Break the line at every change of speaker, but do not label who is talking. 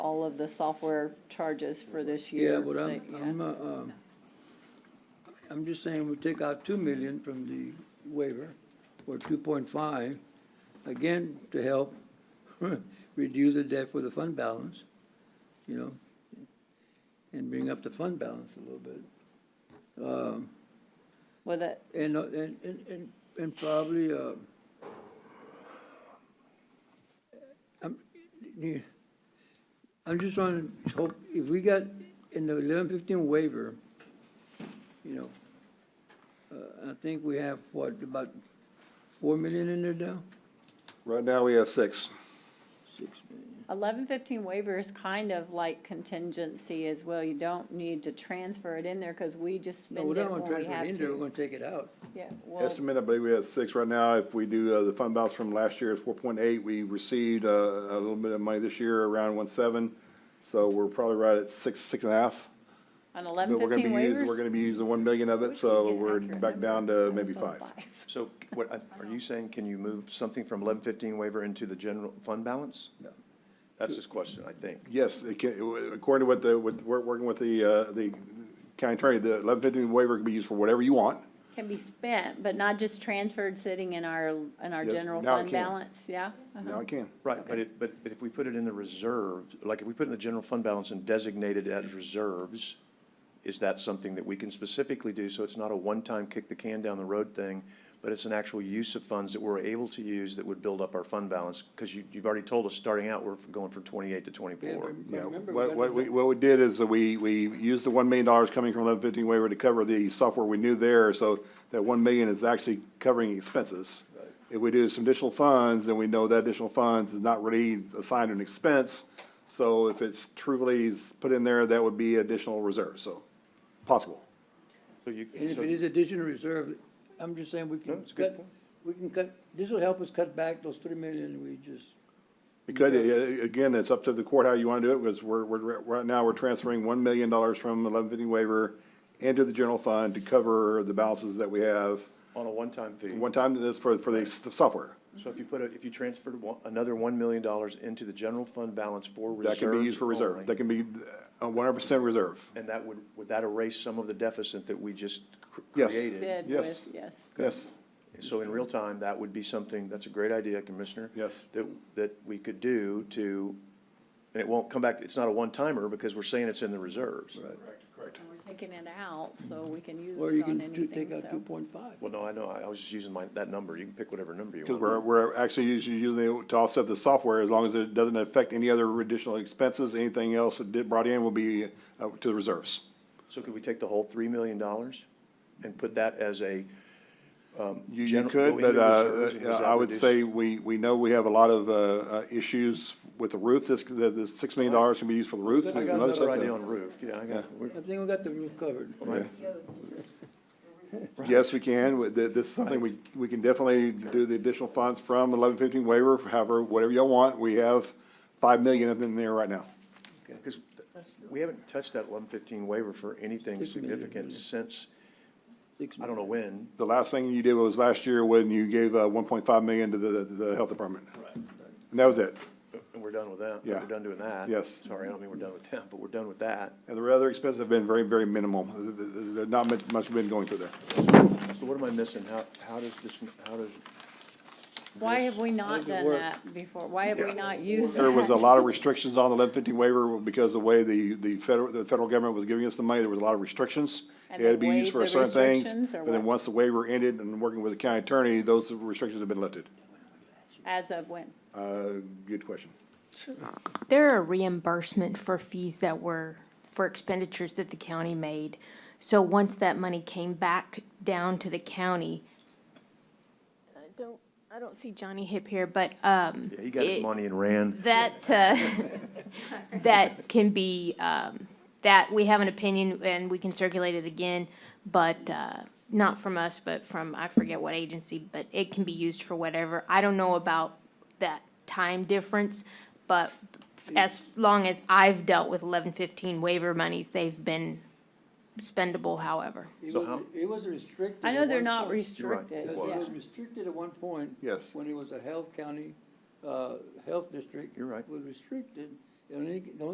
all of the software charges for this year.
Yeah, but I'm,
They- yeah.
I'm, uh, um, I'm just saying we take out two million from the waiver, or two point five, again, to help reduce the debt for the fund balance, you know, and bring up the fund balance a little bit. Um,
Well, that,
and, uh, and, and, and- and probably, uh, I'm, yeah, I'm just trying to hope, if we got in the eleven fifteen waiver, you know, uh, I think we have, what, about four million in there now?
Right now, we have six.
Six million.
eleven fifteen waiver is kind of like contingency as well. You don't need to transfer it in there because we just
No, we
spend it
don't want to
when we
transfer it
have
in there, we're
to.
gonna take it out.
Yeah, well,
Estimate, I believe we have six right now. If we do, uh, the fund balance from last year is four point eight. We received, uh, a little bit of money this year, around one seven. So we're probably right at six, six and a half.
on
But
eleven
we're gonna be
fifteen
using, we're
waivers.
gonna be using one million of it, so we're back down to maybe
Almost
five.
all
So what, I- are you saying, can you move something from eleven fifteen waiver into the general fund balance?
No.
That's his question, I think.
Yes, it can, according to what the, what, we're working with the, uh, the county attorney, the eleven fifteen waiver can be used for whatever you want.
Can be spent, but not just transferred sitting in our, in our
Yeah,
general
now it
fund
can.
balance, yeah? uh-huh.
Now it can.
Right, but it, but, but if we put it in the reserve, like if we put it in the general fund balance and designate it as reserves, is that something that we can specifically do? So it's not a one-time kick the can down the road thing, but it's an actual use of funds that we're able to use that would build up our fund balance? Because you, you've already told us, starting out, we're going from twenty-eight to twenty-four.
Yeah,
Remember, we
what,
got
what
the-
we, what we did is that we, we used the one million dollars coming from eleven fifteen waiver to cover the software we knew there, so that one million is actually covering expenses. If we do some additional funds, then we know that additional funds is not really assigned an expense, so if it's truly is put in there, that would be additional reserve, so, possible.
So you,
And if
so-
it is additional reserve, I'm just saying we
No,
can
it's a good
cut,
point.
we can cut, this will help us cut back those three million we just,
It could, uh, again, it's up to the court how you wanna do it, because we're, we're, right now, we're transferring one million dollars from eleven fifteen waiver into the general fund to cover the balances that we have,
on a one-time fee.
one time to this for, for the s- software.
So if you put, a- if you transferred one- another $1 million into the general fund balance for
That
reserves
can be used for reserve.
only,
That can be one hundred percent reserve.
And that would, would that erase some of the deficit that we just cr-
Yes.
created?
Bid
Yes.
with, yes.
Yes,
So in real time, that would be something, that's a great idea, Commissioner.
Yes.
That, that we could do to, and it won't come back, it's not a one-timer because we're saying it's in the reserves.
right.
And We're taking it out, so we can use
Or you
it on
can do- take
anything,
out two
so.
point five.
Well, no, I know, I I was just using my, that number. You can pick whatever number you
because
want.
we're, we're actually usually using it to offset the software as long as it doesn't affect any other additional expenses. Anything else that did brought in will be uh, to the reserves.
So could we take the whole $3 million and put that as a?
You, you
Gen- go
could,
into
but, uh,
reserves and
uh,
does that
I would
reduce-
say we, we know we have a lot of, uh, uh, issues with the roof. This, the, the six million dollars can be used for the roof.
I
and
got
other
another
stuff.
idea on roof, yeah, I got, we're-
I think we got the roof covered.
Right.
Yes, we can. With- th- This is something we, we can definitely do the additional funds from eleven fifteen waiver, however, whatever y'all want. We have five million in there right now.
Because we haven't touched that eleven fifteen waiver for anything
Six million,
significant
yeah.
since,
Six
I don't know when.
The last thing you did was last year when you gave uh, one point five million to the, to the health department. And that was it.
And we're done with that.
Yeah.
We're done doing that.
Yes.
Sorry, I don't mean we're done with them, but we're done with that.
And the other expenses have been very, very minimal. Th- th- th- Not much, much been going through there.
So what am I missing? How, how does this, how does,
Why have we not
Doesn't
done
work.
that before? Why have we
Yeah.
not used that?
There was a lot of restrictions on the eleven fifteen waiver because of the way the, the federal, the federal government was giving us the money, there was a lot of restrictions.
And
It had to
they
be used for
waived the
certain things,
restrictions, or
but then
what?
once the waiver ended and working with the county attorney, those restrictions have been lifted.
As of when?
Uh, good question.
There are reimbursement for fees that were, for expenditures that the county made. So once that money came back down to the county, I don't, I don't see Johnny Hip here, but, um,
yeah, he got his
It-
money and ran.
that, uh, that can be, um, that, we have an opinion and we can circulate it again, but, uh, not from us, but from, I forget what agency, but it can be used for whatever. I don't know about that time difference, but as long as I've dealt with eleven fifteen waiver monies, they've been spendable however.
It
So
was-
how-
It was restricted.
I know
at
they're
one
not
point.
restricted,
It
was.
yeah.
was restricted at one point.
Yes.
When it was a health county, uh, health district.
You're right.
Was restricted, and only, the only